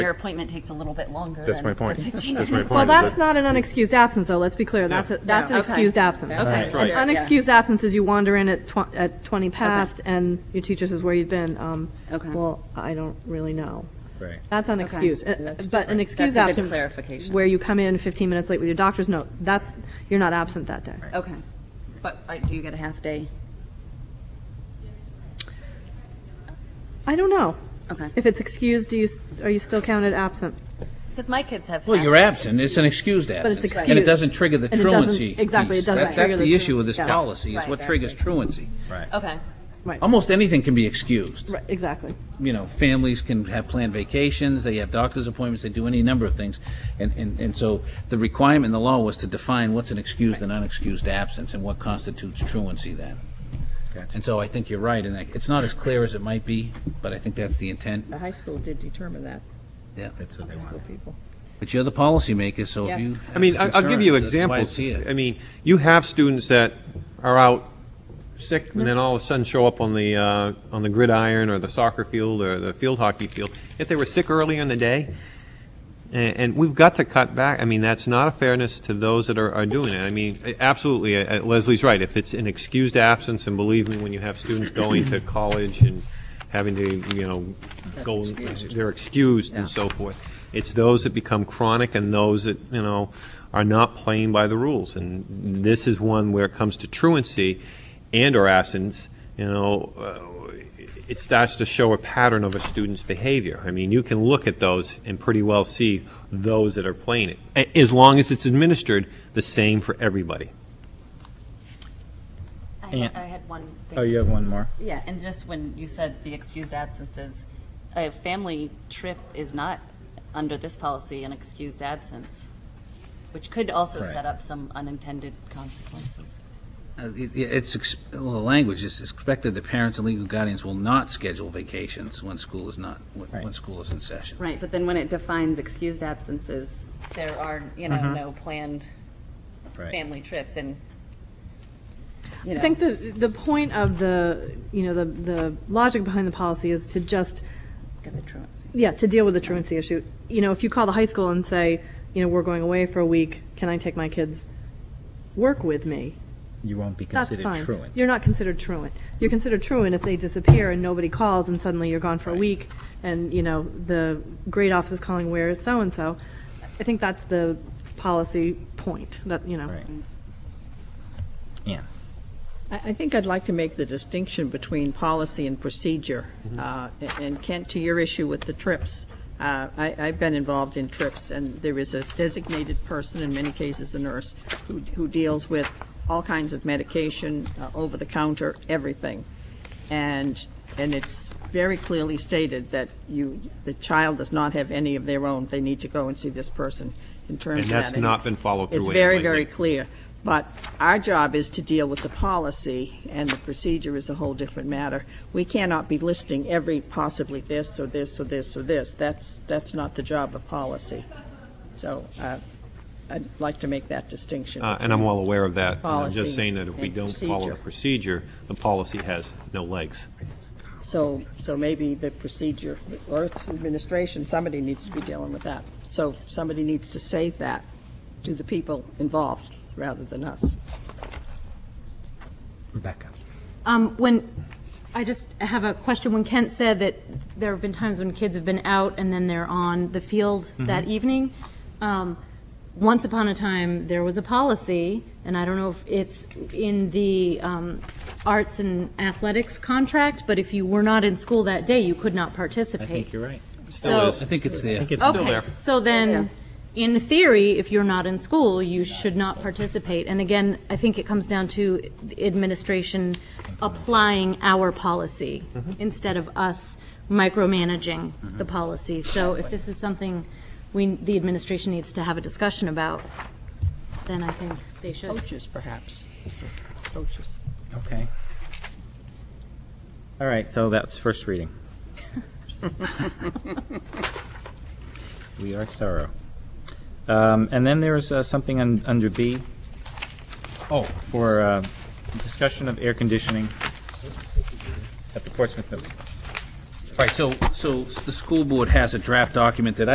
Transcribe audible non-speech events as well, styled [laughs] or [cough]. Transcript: Your appointment takes a little bit longer That's than my point. the 15 That's my point. Well, is that- that's not an unexcused absence, though, let's be clear, that's, a- that's an Okay. excused absence. Okay. Right. yeah. Unexcused absence is you wander in at tw- at 20 past, and your teacher says where you've been. Um, Okay. Well, I don't really know. Right. That's unexcused, Uh, but an excused That's a good absence. clarification. Where you come in 15 minutes late with your doctor's note, that, you're not absent that day. Okay. But uh, do you get a half day? I don't know. Okay. If it's excused, do you, s- are you still counted absent? Because my kids have. Well, half you're days. absent, it's an excused absence. And excused. it doesn't trigger the And it doesn't- truancy. exactly, it piece. doesn't That's- trigger That's the the issue tru- with this yeah. policy, is Right. what triggers truancy. Okay. Almost anything can be excused. Right, exactly. You know, families can have planned vacations, they have doctor's appointments, they do any number of things. And, and, and so the requirement in the law was to define what's an excused and unexcused absence and what constitutes truancy then. And so I think you're right in that, it's not as clear as it might be, but I think that's the intent. The high school did determine that, Yeah. That's what they want. for people. But you're the policymaker, so if Yes. you. I mean, I- I'll give you examples. I mean, you have students that are out sick and then all of a sudden show up on the, uh, on the gridiron or the soccer field or the field hockey field. If they were sick earlier in the day, and, and we've got to cut back. I mean, that's not a fairness to those that are, are doing it. I mean, a- absolutely, uh, uh, Leslie's right. If it's an excused absence, and believe me, when you have students going to college and having to, you know, go, they're excused and so forth. It's those that become chronic and those that, you know, are not playing by the rules. And this is one where it comes to truancy and/or absence, you know, uh, it starts to show a pattern of a student's behavior. I mean, you can look at those and pretty well see those that are playing it, a- as long as it's administered the same for everybody. I And- had, I had one thing. Oh, you have one more? Yeah, and just when you said the excused absences, a family trip is not under this policy an excused absence, which could also Right. set up some unintended consequences. Uh, it- it- It's, ex- well, the language is expected that parents and legal guardians will not schedule vacations when school is not, when- when Right. school is in session. Right, but then when it defines excused absences, there are, you know, no planned Right. family trips and, you I know. think the, the point of the, you know, the, the logic behind the policy is to just Got the truancy. Yeah, to deal with the truancy issue. You know, if you call the high school and say, you know, we're going away for a week, can I take my kids work with me? You won't be That's considered fine. truant. You're not considered truant. You're considered truant if they disappear and nobody calls and suddenly you're gone for a week and, you know, the grade office is calling, where is so-and-so? I think that's the policy point that, you know. Right. Yeah. I, I think I'd like to make the distinction between policy and procedure. Uh, a- And Kent, to your issue with the trips, uh, I, I've been involved in trips, and there is a designated person, in many cases a nurse, who, who deals with all kinds of medication, uh, over-the-counter, everything. And, and it's very clearly stated that you, the child does not have any of their own, they need to go and see this person in terms And of that. that's not it's- been followed through It's with very, lately. very clear. But our job is to deal with the policy, and the procedure is a whole different matter. We cannot be listing every possibly this, or this, or this, or this. That's, that's not the job of policy. So uh, I'd like to make that distinction. Uh, And I'm well aware of that. and I'm Policy just saying that if we and don't follow the procedure, the policy has no legs. So, so maybe the procedure, or it's administration, somebody needs to be dealing with that. So somebody needs to say that to the people involved, rather than us. Rebecca. Um, when, I just have a question. When Kent said that there have been times when kids have been out and then they're on the field Mm-hmm. that evening, um, once upon a time, there was a policy, and I don't know if it's in the um, arts and athletics contract, but if you were not in school that day, you could not participate. I think you're right. So, I think it's there. It's still okay, there. so then, in theory, if you're not in school, you should not participate. And again, I think it comes down to the administration applying our policy Mm-hmm. instead of us micromanaging the policy. So if this is something we, the administration needs to have a discussion about, then I think they Oh, should. Coaches, perhaps. Coaches. Okay. All right, so that's [laughs] first reading. We are thorough. Um, And then there is uh, something un- under B. Oh, for uh, discussion of air conditioning at the Portsmouth Middle. Right, so, so the school board has a draft document that